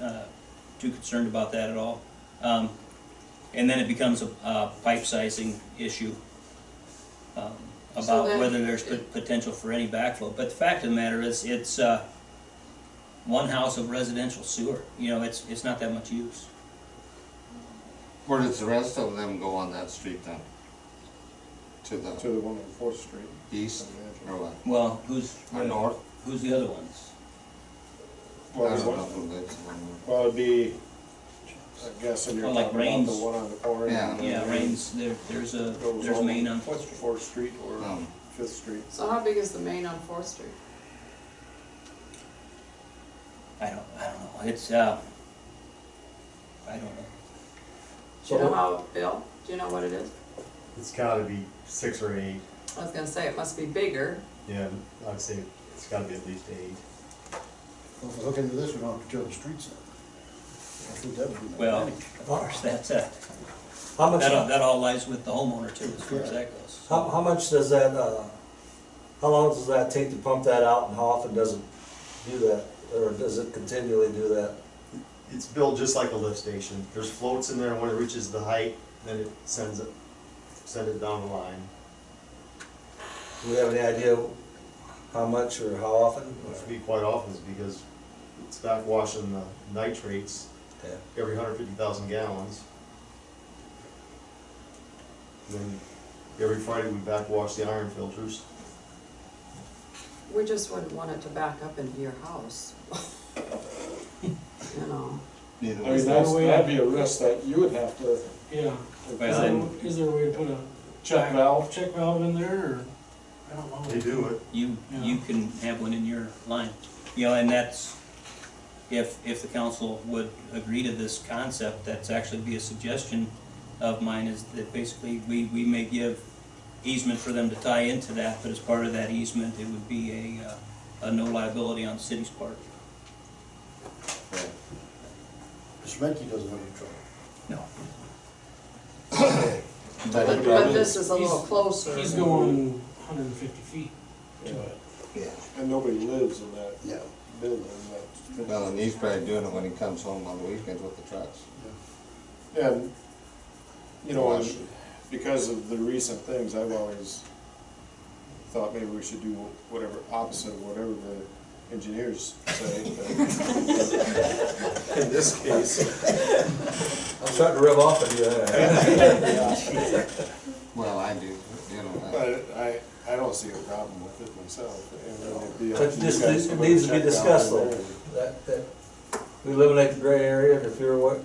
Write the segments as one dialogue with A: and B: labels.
A: uh, too concerned about that at all. Um, And then it becomes a uh, pipe sizing issue um,
B: So
A: about
B: then-
A: whether there's pot- potential for any backflow. But the fact of the matter is, it's uh, one house of residential sewer, you know, it's, it's not that much use.
C: Where does the rest of them go on that street then? To
D: to
C: the
D: the one on Fourth Street.
C: east or what?
A: Well, who's,
C: Or north?
A: who's the other ones?
C: I
D: Well,
C: don't
D: the
C: know
D: one-
C: who lives on
D: well, it'd be, I guess, and
A: Oh,
D: you're
A: like
D: talking about the
A: Rains.
D: one on the corner.
C: Yeah.
D: and
A: Yeah,
D: then
A: Rains, there, there's a,
D: goes
A: there's a main on Fourth
D: Fourth,
A: Street.
D: Fourth Street
C: there.
D: or
C: Um,
D: Fifth Street.
B: So how big is the main on Fourth Street?
A: I don't, I don't know, it's, uh, I don't know.
B: Do you know
E: So
B: how, Bill, do you know what it is?
E: it's gotta be six or eight,
B: I was gonna say it must be bigger.
E: yeah, I'd say it's gotta be at least eight.
F: Well, if we look into this, we don't have to drill the streets out. I think that would be.
A: Well, of course, that's a,
G: How much,
A: that uh, all,
G: how,
A: that all lies with the homeowner too, as far as that goes.
G: how much does that, uh, how long does that take to pump that out and how often does it do that? Or does it continually do that?
E: It's built just like a lift station, there's floats in there, when it reaches the height, then it sends it, send it down the line.
G: Do we have any idea how much or how often?
E: Which we quite often is because it's back washing the nitrates
G: Yeah.
E: every hundred fifty thousand gallons. And Then every Friday we back wash the iron filters.
B: We just wouldn't want it to back up into your house. You know,
C: neither
D: I
C: was
D: mean,
C: that.
D: that's, that'd be a risk that you would have to.
H: Yeah, is
A: Well,
H: there,
A: then-
H: is there a way to put a
D: Check valve.
H: check valve in there, or, I don't know.
E: They do it.
A: You, you can have one in your line, you know, and that's, if, if the council would agree to this concept, that's actually be a suggestion of mine, is that basically, we, we may give easement for them to tie into that, but as part of that easement, it would be a, uh, a no liability on the city's part.
F: Schmidtke doesn't have any trouble.
A: No.
C: That
B: but,
C: would
B: but
C: probably-
B: this is a little
H: He's-
B: closer.
H: He's going hundred and fifty feet to it.
F: Yeah.
D: And nobody lives in that
F: No.
D: building,
C: Well, and he's probably doing it when he comes home on the weekends with the trucks.
D: that, and, you know,
C: Wash
D: and because of the recent things, I've always thought maybe we should do whatever, opposite of whatever the engineers say. but In this case,
G: I'm starting to rub off on you. there.
C: Well, I do, you know,
D: but I, I don't see a problem with it myself. and it'd be up
G: But
D: to you
G: this,
D: guys
G: it
D: whether
G: needs to be
D: check out
G: discussed
D: there.
G: though. That, that, we eliminate the gray area and if you're what,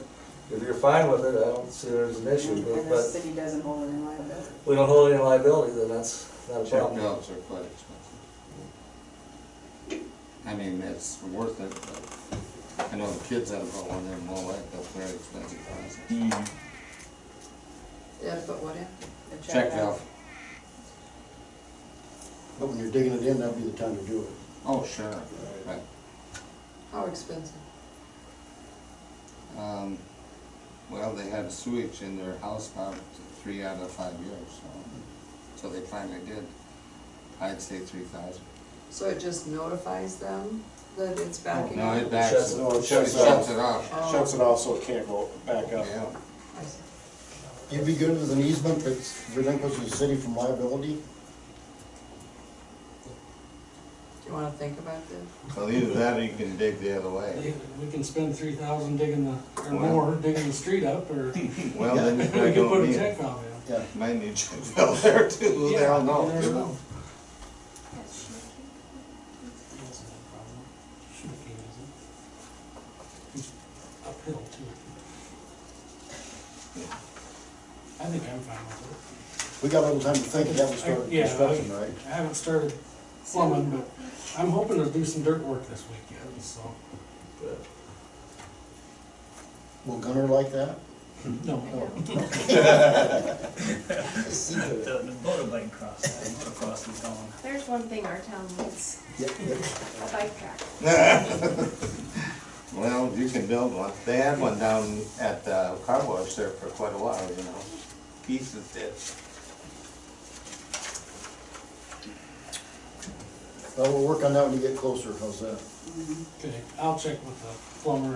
G: if you're fine with it, I don't see there's an issue. But,
I: And the
G: but
I: city doesn't hold any liability.
G: we don't hold any liability, then that's not a
C: check
G: problem.
C: valves are quite expensive. I mean, it's worth it, but I know the kids had about one of them all that, that's very expensive. prices.
A: Hmm.
B: Yeah, but what if?
I: The
C: Check valve,
F: But when you're digging it in, that'd be the time to do it.
C: oh, sure, right.
B: How expensive?
C: Um, well, they had sewage in their house about three out of five years, so, so they finally did. I'd say three thousand.
B: So it just notifies them that it's backing
C: No,
B: up?
C: it backs,
G: Shuts
C: it
D: No, it shuts it
C: shuts it off,
D: off,
B: Oh,
D: shuts it off so it can't go back up.
C: yeah.
B: I see.
F: You'd be good with an easement that relinquishes the city from liability?
B: Do you wanna think about this?
C: Well, either that or you can dig the other way.
H: They- We can spend three thousand digging the, or
C: Wow.
H: more, digging the street up, or we
C: Well, then you probably
H: can put
C: don't
H: a
C: need
H: check
C: it.
H: valve in.
F: Yeah.
C: Might need to fill there too, they all know,
H: Yeah,
C: you
H: there's
C: know.
H: no- That's not a problem. Sugar cane, is it? It's Uphill too. I think I'm fine with
F: We got a little time to think, and that was start
H: I- yeah, I-
F: construction, right?
H: it. I haven't started plumbing, but I'm hoping to do some dirt work this weekend, so.
F: Will Gunner like that?
C: Mm-hmm.
H: No,
A: The, the motorbike cross, the motocross is on.
J: There's one thing our town needs, a bike track.
C: Well, you can build one. They had one down at the car wash there for quite a while, you know. Pieces did.
F: Well, we'll work on that when you get closer, how's that?
H: okay, I'll check with the plumber